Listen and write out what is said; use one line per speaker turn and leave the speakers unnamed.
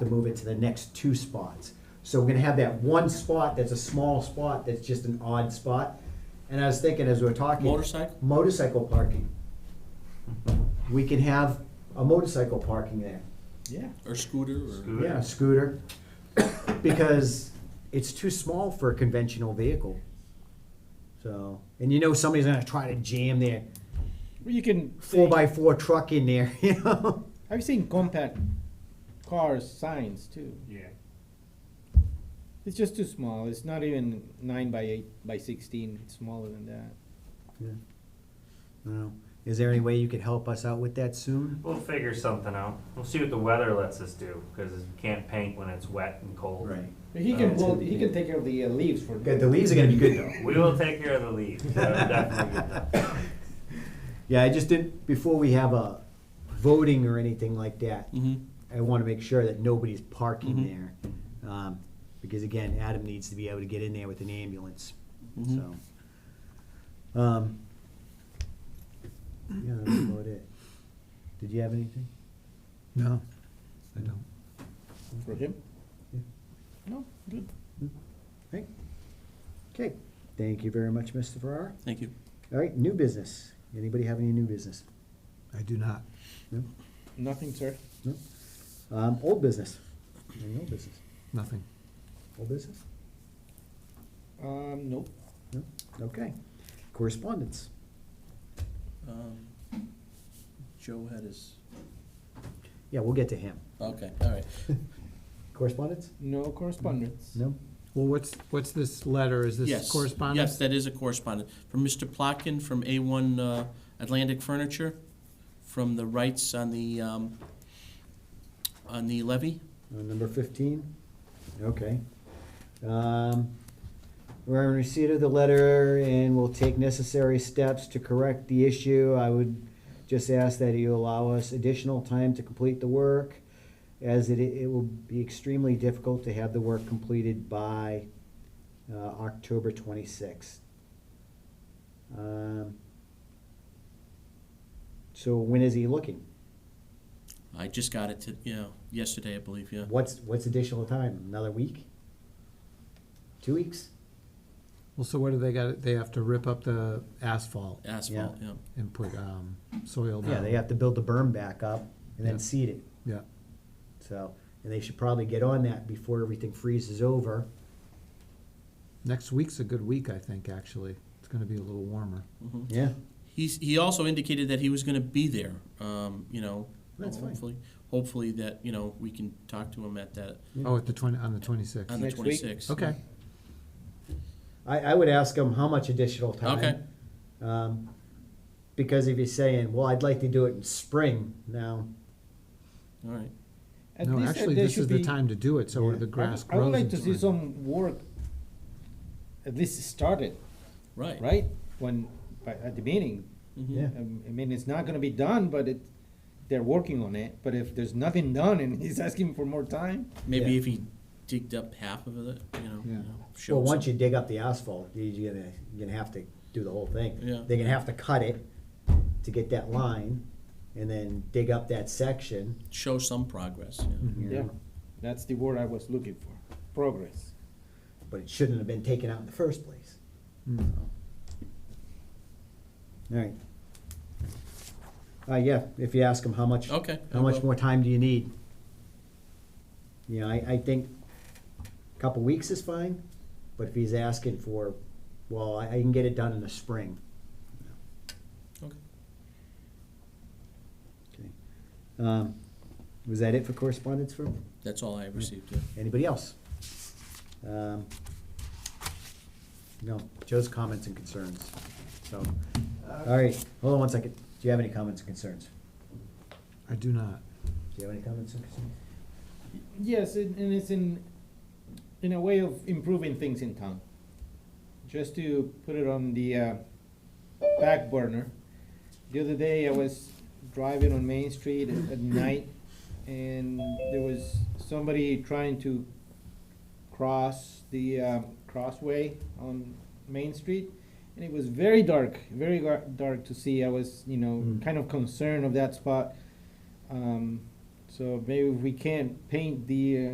to move it to the next two spots. So we're gonna have that one spot that's a small spot, that's just an odd spot. And I was thinking as we were talking.
Motorcycle?
Motorcycle parking. We can have a motorcycle parking there.
Yeah. Or scooter or,
Scooter.
Yeah, scooter, because it's too small for a conventional vehicle. So, and you know somebody's gonna try to jam their
You can
four
say-
by four truck in there, you know?
I've seen compact cars signs too.
Yeah.
It's just too small. It's not even nine by eight by sixteen. It's smaller than that.
Well, Is there any way you could help us out with that soon?
We'll figure something out. We'll see what the weather lets us do, because we can't paint when it's wet and cold.
But he
Uh,
can hold, he can take care of the uh, leaves for.
Good, Oh, the leaves are gonna be good though.
We will take care of the leaves. That'll definitely get done.
Yeah, I just didn't, before we have a voting or anything like that,
Mhm.
I wanna make sure that nobody's parking
Mhm.
there. Um, Because again, Adam needs to be able to get in there with an ambulance, so.
Mhm.
Um, Yeah, that's about it. Did you have anything?
No, I don't.
For him?
Yeah.
No, good.
Right? Okay, thank you very much, Mr. Farrar.
thank you.
All right, new business. Anybody have any new business?
I do not.
No?
Nothing, sir.
No? Um, old business? Any old business?
Nothing.
Old business?
Um, nope.
No? Okay. Correspondence?
Um, Joe had his,
Yeah, we'll get to him.
okay, all right.
Correspondence?
No correspondence.
No?
Well, what's, what's this letter? Is
Yes,
this correspondence?
Yes, that is a correspondence. From Mr. Plotkin from A1 uh, Atlantic Furniture, from the rights on the, um, on the levy.
Uh, number fifteen? Okay. Um, we're in receipt of the letter and will take necessary steps to correct the issue. I would just ask that you allow us additional time to complete the work, as it, it will be extremely difficult to have the work completed by, uh, October twenty-sixth. Um, so when is he looking?
I just got it, to- you know, yesterday, I believe, yeah.
What's, what's additional time? Another week? Two weeks?
Well, so what do they got? They have to rip up the asphalt
Asphalt, yeah.
and put, um, soil down.
Yeah, they have to build the berm back up and then
Yeah.
seed it,
Yeah,
so, and they should probably get on that before everything freezes over.
next week's a good week, I think, actually. It's gonna be a little warmer.
Mhm.
Yeah.
He's, he also indicated that he was gonna be there, um, you know.
That's fine.
Hopefully, hopefully that, you know, we can talk to him at that,
Oh, at the twenty, on the twenty-sixth.
on the
Next week?
twenty-sixth.
Okay,
I, I would ask them how much additional time.
Okay.
Um, because if you're saying, well, I'd like to do it in spring now,
All right.
At
no,
least, uh,
actually,
there
this
should
is the
be-
time to do it, so
Yeah.
the
I
grass
would- I
grows.
would like to
in
see
spring.
some work, at least started,
Right.
right? When, by, at the beginning.
Mhm.
Yeah.
Um, I mean, it's not gonna be done, but it, they're working on it. But if there's nothing done and he's asking for more time,
Maybe
Yeah.
if he digged up half of it, you know.
Yeah.
you know, showed
well, once
some-
you dig up the asphalt, you- you're gonna, you're gonna have to do the whole thing.
Yeah.
They're gonna have to cut it to get that line and then dig up that section.
Show some progress, yeah.
you
yeah,
know,
that's the word I was looking for, progress.
But it shouldn't have been taken out in the first place.
Mm.
All right. Uh, yeah, if you ask them how much,
Okay.
how
I
much
will.
more time do you need? You know, I, I think a couple weeks is fine, but if he's asking for, well, I, I can get it done in the spring.
Okay.
Okay. Um, was that it for correspondence from
That's all I received, yeah.
anybody else? Um, No, Joe's comments and concerns, so, all right, hold on one second. Do you have any comments and concerns?
I do not.
Do you have any comments and concerns?
Yes, and and it's in, in a way of improving things in town. Just to put it on the uh, back burner. The other day I was driving on Main Street at at night and there was somebody trying to cross the uh, crossway on Main Street. And it was very dark, very gar- dark to see. I was, you know,
Mm.
kind of concerned of that spot. Um, So maybe if we can't paint the, uh,